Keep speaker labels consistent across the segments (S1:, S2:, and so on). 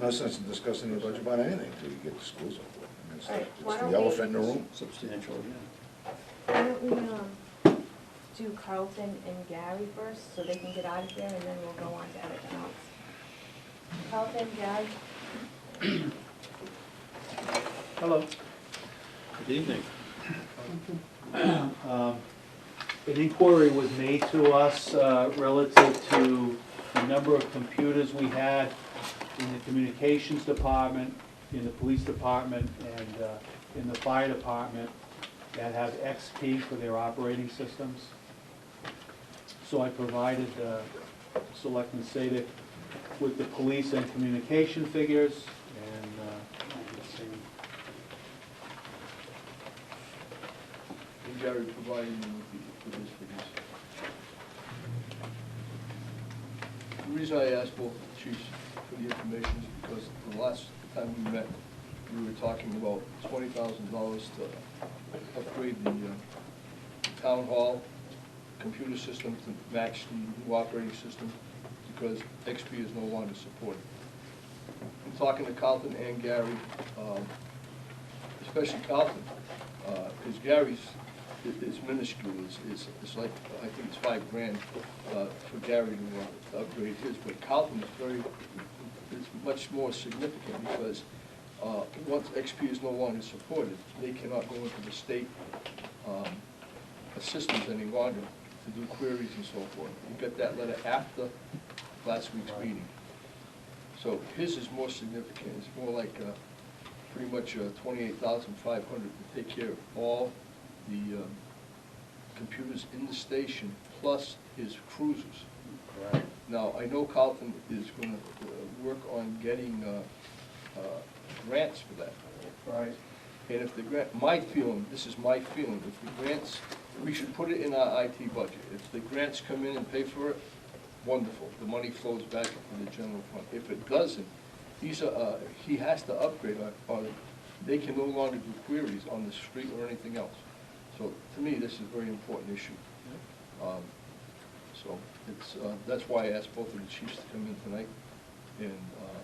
S1: No sense in discussing the budget about anything until you get the schools over with. I mean, it's-
S2: Right. Why
S1: It's
S2: don't
S1: the
S2: we-
S1: elephant in the room.
S3: Substantial, yeah.
S2: Why don't we, um, do Carlton and Gary first, so they can get out of there, and then we'll go on to everything else. Carlton, Gary?
S4: Hello.
S3: Good evening.
S4: Um, An inquiry was made to us uh, relative to the number of computers we had in the communications department, in the police department, and uh, in the fire department that have XP for their operating systems. So I provided uh, Selectmen Sadik with the police and communication figures, and uh, let's see,
S5: And Jerry provided me with the- with those figures. The reason I asked both chiefs for the information is because the last time we met, we were talking about twenty thousand dollars to upgrade the uh, town hall computer system to match the new operating system, because XP is no longer supported. I'm talking to Carlton and Gary, um, especially Carlton, because Gary's, i- is minuscule, it's, it's, it's like, I think it's five grand uh, for Gary to uh, upgrade his, but Carlton is very, is much more significant because uh, once XP is no longer supported, they cannot go into the state um, assistance any longer to do queries and so forth. You got that letter after last week's meeting. So his is more significant, it's more like, uh, pretty much uh, twenty-eight thousand five hundred to take care of all the um, computers in the station, plus his cruisers.
S4: Right.
S5: Now, I know Carlton is gonna uh, work on getting uh, uh, grants for that.
S4: Right.
S5: And if the grant, my feeling, this is my feeling, if the grants, we should put it in our IT budget. If the grants come in and pay for it, wonderful, the money flows back into the general fund. If it doesn't, these are, uh, he has to upgrade, or- or they can no longer do queries on the street or anything else. So to me, this is a very important issue. Um, So it's, uh, that's why I asked both of the chiefs to come in tonight and uh,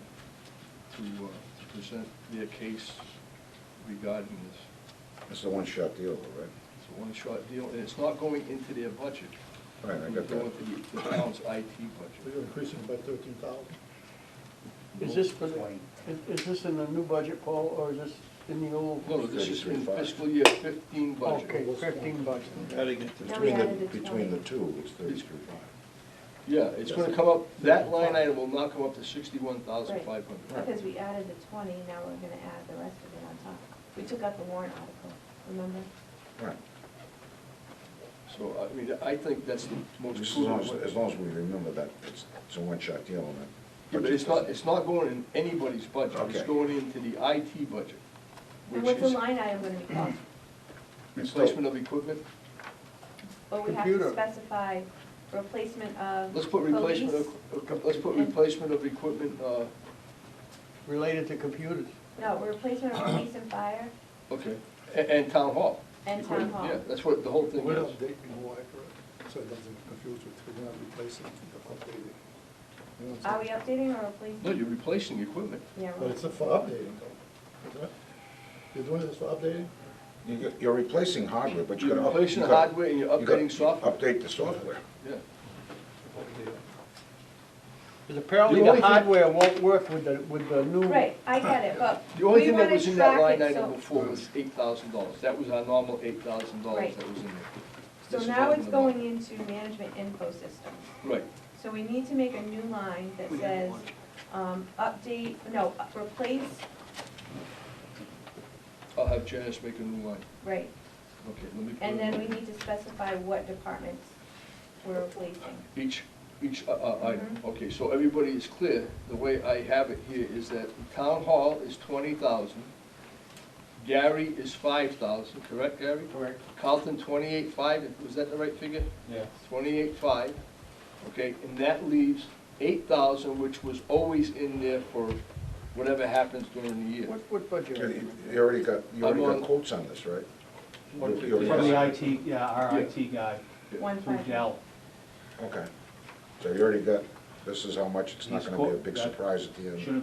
S5: to uh, to present their case regarding this.
S1: It's the one-shot deal, though, right?
S5: It's a one-shot deal, and it's not going into their budget.
S1: Right, I got
S5: It's going
S1: that.
S5: to the town's IT
S6: We're
S5: budget.
S6: increasing by thirteen thousand.
S7: Is this for the, is is this in the new budget, Paul, or is this in the old?
S5: No, this is in
S1: 33.5.
S5: fiscal year fifteen
S7: Okay,
S5: budget.
S7: fifteen budget.
S3: Adding it
S2: No,
S3: to,
S2: we
S1: Between
S2: added
S1: the,
S2: the
S1: between the
S2: 20.
S1: two, it's thirty-three five.
S5: Yeah, it's gonna come up, that line item will not come up to sixty-one thousand five
S2: Right,
S5: hundred.
S2: Because we added the twenty, now we're gonna add the rest of it on top. We took out the warrant article, remember?
S1: Right.
S5: So, I mean, I think that's the most
S1: As long as,
S5: prudent way.
S1: as long as we remember that, it's, it's a one-shot deal and that.
S5: Yeah, But it's not, it's not going in anybody's budget, it's
S1: Okay.
S5: going into the IT budget,
S2: And
S5: which
S2: what's the
S5: is
S2: line item gonna be called?
S5: replacement of equipment.
S2: But we have to
S7: Computer.
S2: specify replacement of
S5: Let's put replacement,
S2: police.
S5: of- let's put replacement of equipment, uh,
S7: Related to computers.
S2: No, replacement of police and fire
S5: okay, and, and town hall.
S2: and town hall.
S5: Yeah, that's what the whole thing
S6: We're
S5: is.
S6: updating more accurate, so it doesn't confuse with, we're not replacing, we're updating. You know what I'm
S2: Are we
S6: saying?
S2: updating or replacing?
S5: No, you're replacing equipment.
S2: Yeah,
S7: Uh,
S6: But
S2: we're-
S6: it's for updating though, isn't it? You're doing this for updating?
S1: You- You're replacing hardware, but you
S5: You're
S1: gotta. up-
S5: replacing
S1: you gotta-
S5: hardware and you're
S1: you gotta
S5: updating software.
S1: Update the software.
S5: Yeah.
S7: Because apparently
S5: The only
S7: the
S5: thing-
S7: hardware won't work with the, with the new.
S2: right, I get it, but
S5: The only
S2: we
S5: thing that
S2: wanna
S5: was in that
S2: track
S5: line
S2: it,
S5: item
S2: so,
S5: before was eight thousand dollars. That was our normal eight thousand dollars
S2: Right.
S5: that was in
S2: so
S5: this is
S2: now
S5: all
S2: it's
S5: in the line.
S2: going into management info systems.
S5: there. Right.
S2: So we need to make a new line that
S5: We have
S2: says,
S5: one.
S2: um, update, no, up- replace,
S5: I'll have Janice make a new line.
S2: right,
S5: Okay, let me.
S2: and then we need to specify what departments we're replacing.
S5: Each, each uh, uh, item.
S2: Mhm.
S5: Okay, so everybody is clear. The way I have it here is that the town hall is twenty thousand. Gary is five thousand, correct, Gary?
S7: Correct.
S5: Carlton, twenty-eight five, was that the right figure?
S4: Yeah.
S5: Twenty-eight five, okay, and that leaves eight thousand, which was always in there for whatever happens during the year.
S7: What, what budget? are
S1: You
S7: you
S1: you already got, you already
S5: I'm on-
S1: got quotes on this, right? You- you already
S4: From the
S1: got-
S4: IT, yeah, our IT guy,
S2: One
S4: through
S2: five.
S4: Dell.
S1: Okay. So you already got, this is how much, it's not
S4: These
S1: gonna be a
S4: quote-
S1: big
S4: that
S1: surprise at the end.
S4: Should've